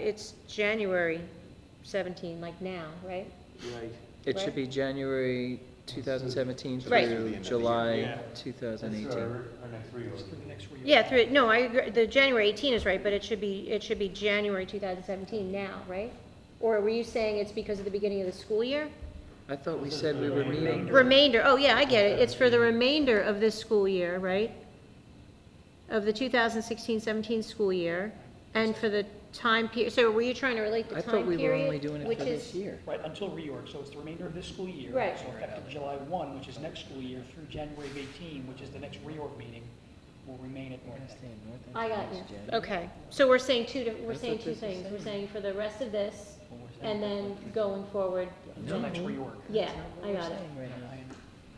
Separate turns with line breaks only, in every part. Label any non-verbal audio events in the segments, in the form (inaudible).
it's January 17, like now, right?
Right.
It should
Right.
be January 2017
Right.
through
Yeah.
July
That's That's
2018.
our, our next reorg.
Yeah, through, no, I agree, the January 18 is right, but it should be, it should be January 2017 now, right? Or were you saying it's because of the beginning of the school year?
I thought we said we were meeting.
Remainder, oh yeah, I get it, it's for the remainder of this school year, right? Of the 2016-17 school year, and for the time period, so were you trying to relate
I
the
thought
time
we were
period?
only doing it
which
for this
is-
year.
Right, until reorg, so it's the remainder of this school year.
Right.
So effective July 1, which is next school year, through January of 18, which is the next reorg meeting, will remain at North End.
I got you, okay, so we're saying two, di- we're saying two things, we're saying for the rest of this, and then going forward,
Until next reorg.
yeah, I got it.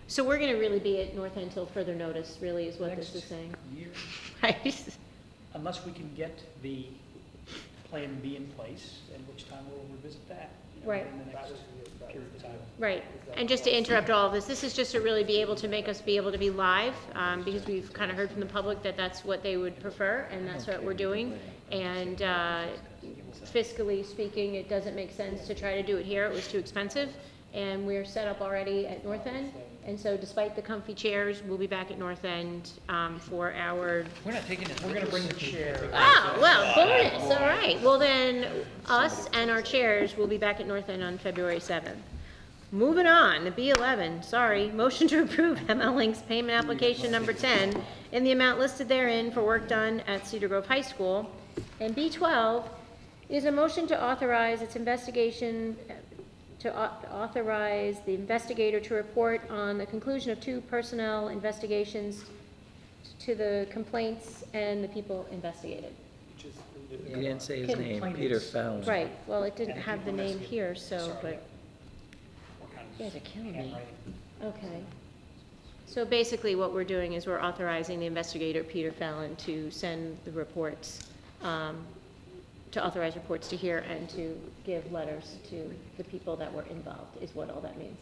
So we're gonna really be at North End till further notice, really, is what this is
Next
saying,
year,
(laughs) right?
Unless we can get the Plan B in place, at which time we'll revisit that. you know,
Right.
In the next period of time.
Right, and just to interrupt all of this, this is just to really be able to make us be able to be live, um, because we've kind of heard from the public that that's what they would prefer, and that's what we're doing. And, uh, fiscally speaking, it doesn't make sense to try to do it here, it was too expensive, and we're set up already at North End. And so despite the comfy chairs, we'll be back at North End, um, for our
We're not taking it. We're going to bring the chair.
Ah, well, bonus, all right. Well, then, us and our chairs will be back at North End on February 7th. Moving on, to B11, sorry. (laughs) Motion to approve ML Link's payment application number 10 in the amount listed therein for work done at Cedar Grove High School. And B12 is a motion to authorize its investigation, to au- authorize the investigator to report on the conclusion of two personnel investigations to the complaints and the people investigated.
You didn't say his name, Peter Fallon.
Right, well, it didn't have the name here, so, but,
Yeah,
Yeah, they're killing me. okay. So basically, what we're doing is we're authorizing the investigator, Peter Fallon, to send the reports, um, to authorize reports to here and to give letters to the people that were involved, is what all that means,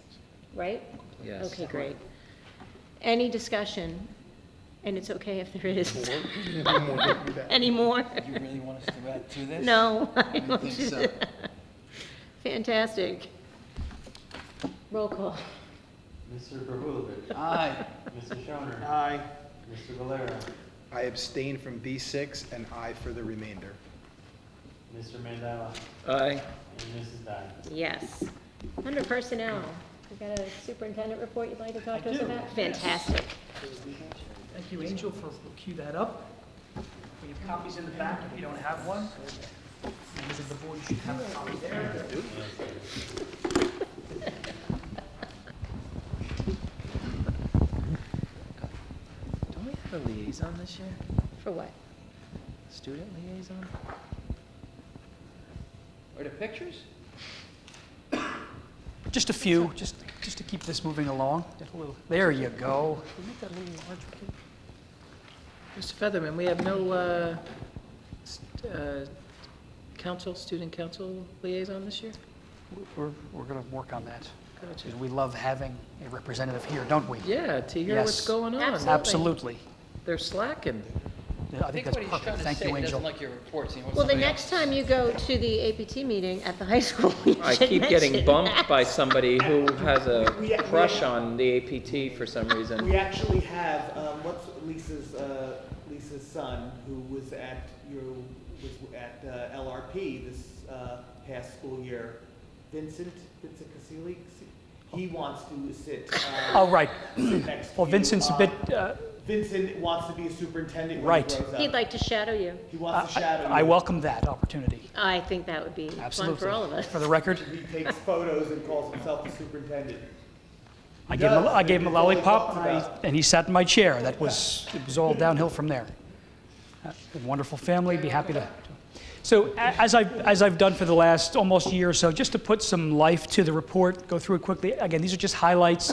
right?
Yes.
Okay, great. Any discussion? And it's okay if there is. (laughs) Anymore?
You really want us to add to this?
No. I
I
don't
think
do
so.
that. (laughs) Fantastic. Roll call.
Mr. Pervulovich.
Aye.
Mr. Schoner. Aye. Mr. Valero.
I abstain from B6 and I for the remainder.
Mr. Mandela.
Aye.
And Mrs. Dye.
Yes. Under personnel, you got a superintendent report you'd like to talk
I
to us
do,
about?
yes.
Fantastic.
Thank you, Angel, for we'll cue that up. We have copies in the back if you don't have one. Members of the board should have a copy there.
Don't we have a liaison this year?
For what?
Student liaison?
Are the pictures?
Just a few, just, just to keep this moving along. That little- There you go.
Mr. Featherman, we have no uh, st- uh, council, student council liaison this year?
We're, we're going to work on that.
Gotcha.
Because we love having a representative here, don't we?
Yeah, to hear what's
Yes.
going on.
Absolutely.
Absolutely.
They're slacking.
Yeah, I think that's
what he's trying
perfect.
to
Thank
say,
you,
he
Angel.
doesn't like your reports, he wants
Well, the
somebody
next time you go to the APT meeting at the high (laughs) school, you should
I keep
mention
getting bumped
that.
by somebody who has a
We- we-
crush on the APT for some reason.
We actually have, um, what's Lisa's, uh, Lisa's son, who was at your, was at, uh, LRP this, uh, past school year, Vincent, Vincent Casili? He wants to sit, uh,
Oh, right.
sit next to
Well,
you.
Vincent's a
Uh,
bit, uh,
Vincent wants to be a superintendent when he
Right.
grows up.
He'd like to shadow you.
He
I
wants to shadow you.
I welcome that opportunity.
I think that would be fun
Absolutely.
for all of us.
For the record,
He takes photos and calls himself the superintendent.
I gave him, a- I
does.
gave him a
It's all he
lollipop,
talks
and I-
about.
and he sat in my chair. That was, it was all downhill from there. Uh, Wonderful family, be happy to. So a- as I've, as I've done for the last almost year or so, just to put some life to the report, go through it quickly. Again, these are just highlights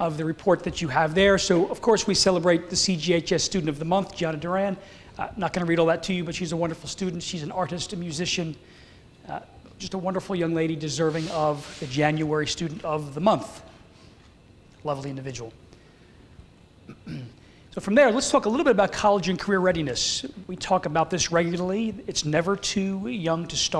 of the report that you have there. So of course, we celebrate the CGHS Student of the Month, Gianna Duran. Uh, Not going to read all that to you, but she's a wonderful student. She's an artist, a musician, uh, just a wonderful young lady deserving of the January Student of the Month lovely individual. (clears throat) So from there, let's talk a little bit about college and career readiness. We talk about this regularly. It's never too young to start.